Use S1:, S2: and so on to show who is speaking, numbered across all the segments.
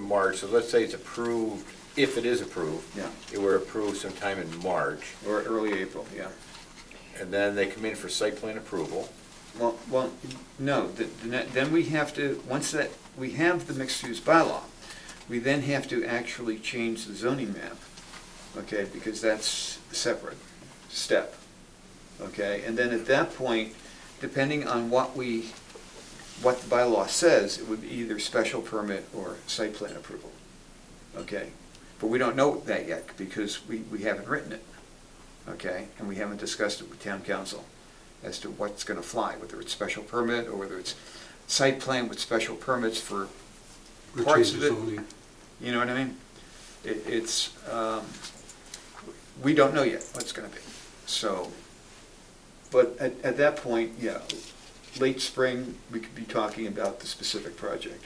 S1: March, so let's say it's approved, if it is approved.
S2: Yeah.
S1: It were approved sometime in March,
S2: or early April, yeah.
S1: and then they come in for site plan approval.
S2: Well, well, no, th- th- then we have to, once that, we have the mixed-use bylaw, we then have to actually change the zoning map, okay, because that's a separate step, okay? And then at that point, depending on what we, what the bylaw says, it would be either special permit or site plan approval, okay? But we don't know that yet, because we, we haven't written it, okay? And we haven't discussed it with town council as to what's gonna fly, whether it's special permit or whether it's site plan with special permits for
S3: Or
S2: parts
S3: change
S2: of
S3: the
S2: it.
S3: zoning.
S2: You know what I mean? It, it's, um, we don't know yet what it's gonna be, so, but at, at that point, yeah, late spring, we could be talking about the specific project.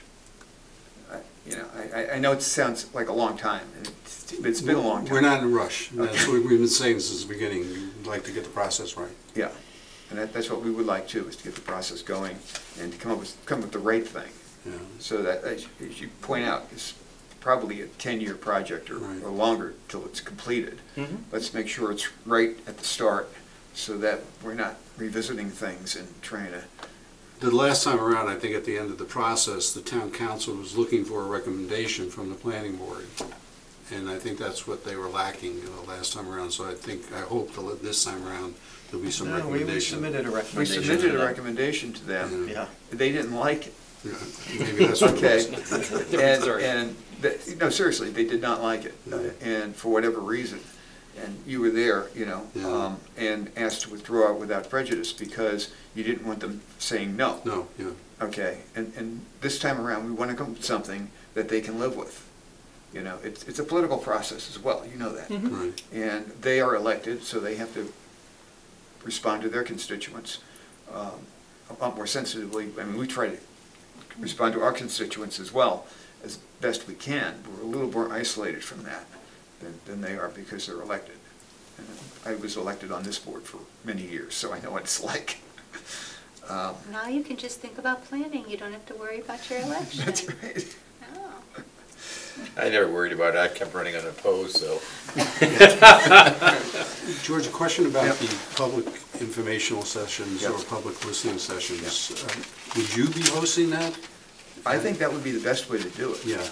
S2: I- You know, I- I, I know it sounds like a long time, and it's, it's been a long time.
S3: We're not in a rush.
S2: Okay.
S3: That's what we've been saying since the beginning. We'd like to get the process right.
S2: Yeah, and that, that's what we would like too, is to get the process going and to come up with, come up with the right thing.
S3: Yeah.
S2: So that, as as you point out, it's probably a 10-year project or
S3: Right. Mm-hmm.
S2: or longer till it's completed. Let's make sure it's right at the start so that we're not revisiting things and trying to,
S3: The last time around, I think at the end of the process, the town council was looking for a recommendation from the planning board. And I think that's what they were lacking you know, last time around, so I think, I hope that this time around, there'll be some
S4: No, we- we
S3: recommendation.
S4: submitted a
S2: we
S4: recommendation.
S2: submitted
S4: to
S2: a
S4: them.
S2: recommendation to them.
S4: Yeah,
S2: They didn't like it,
S3: Yeah, Maybe that's what
S2: okay?
S3: it was.
S2: And, and, the- no, seriously, they did not like it, uh,
S3: Yeah.
S2: and for whatever reason. And you were there, you know,
S3: Yeah.
S2: um, and asked to withdraw without prejudice because you didn't want them saying no.
S3: No, yeah,
S2: Okay, and, and this time around, we want to come up with something that they can live with. You know, it's, it's a political process as well, you know that.
S4: Mm-hmm.
S3: right.
S2: And they are elected, so they have to respond to their constituents um, a lot more sensitively. I mean, we try to respond to our constituents as well as best we can. We're a little more isolated from that than, than they are because they're elected. And I was elected on this board for many years, so I know what it's like. Um,
S5: Now you can just think about planning, you don't have to worry about your election.
S2: That's right.
S5: Oh.
S1: I never worried about it, I kept running unopposed, so.
S3: George, a question about
S2: Yep.
S3: the public informational sessions or
S2: Yep.
S3: public listening sessions. Um, Would you be hosting that?
S2: I think that would be the best way to do it.
S3: Yeah,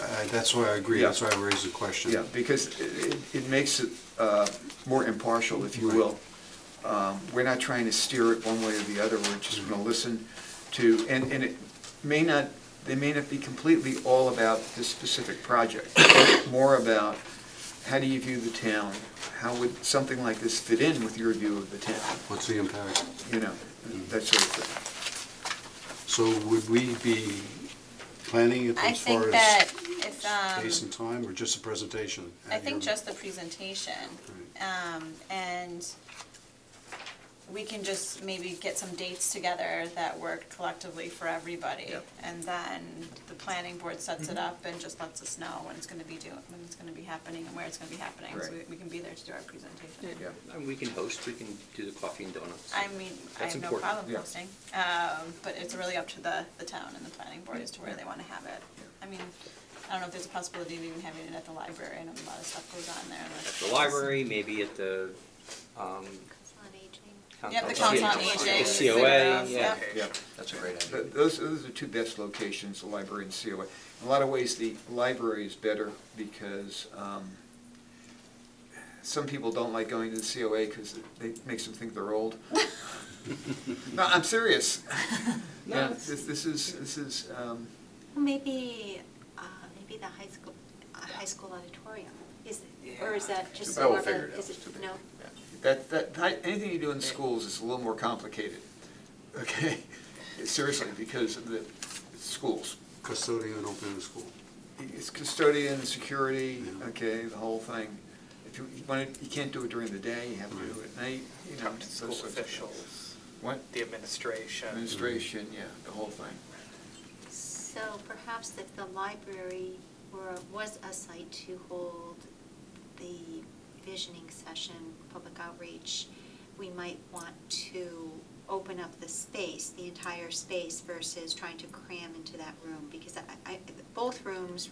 S3: I- that's why I agree, that's why I raised the question.
S2: Yeah, because it, it makes it uh, more impartial, if you will. Um, We're not trying to steer it one way or the other, we're just gonna listen to, and, and it may not, they may not be completely all about this specific project. More about, how do you view the town? How would something like this fit in with your view of the town?
S3: What's the impact?
S2: You know, that sort of thing.
S3: So would we be planning it
S6: I
S3: as far
S6: think that
S3: as
S6: if,
S3: space
S6: um,
S3: and time, or just a presentation?
S6: I think just the presentation, um, and we can just maybe get some dates together that work collectively for everybody.
S2: Yep.
S6: And then the planning board sets it
S3: Mm-hmm.
S6: up and just lets us know when it's gonna be do, when it's gonna be happening and where it's gonna be happening. So we,
S2: Right.
S6: we can be there to do our presentation.
S2: Yeah.
S7: And we can host, we can do the coffee and donuts.
S6: I mean, I
S7: That's
S6: have no
S7: important.
S6: problem
S2: Yeah.
S6: posting, um, but it's really up to the, the town and the planning board as to where they wanna have it. I mean, I don't know if there's a possibility of even having it at the library, I know a lot of stuff goes on there.
S7: At the library, maybe at the, um.
S5: Council on Aging.
S6: Yeah, the
S7: council-
S6: Council on
S7: yeah,
S6: Aging.
S7: the COA, yeah.
S6: Yeah.
S2: Yeah.
S7: That's a great idea.
S2: Th- Those, those are two best locations, the library and COA. In a lot of ways, the library is better because um, some people don't like going to the COA because it makes them think they're old. No, I'm serious. Yeah, This this is, this is, um,
S5: Well, maybe, uh, maybe the high school, uh, high school auditorium, is, or is that just
S1: I will
S5: more of
S1: figure
S5: a,
S1: it out.
S5: is it, no?
S2: that, that, that- anything you do in schools is a little more complicated, okay? Seriously, because of the schools.
S3: Custodian open in school.
S2: It's custodian, security,
S3: Yeah.
S2: okay, the whole thing. If you you want to, you can't do it during the day, you have to do it at night, you know.
S8: Talk to
S2: those
S8: school
S2: sorts of things.
S8: officials,
S2: What?
S8: the administration.
S2: Administration, yeah, the whole thing.
S5: So perhaps if the library were, was a site to hold the visioning session, public outreach, we might want to open up the space, the entire space versus trying to cram into that room because I, I, both rooms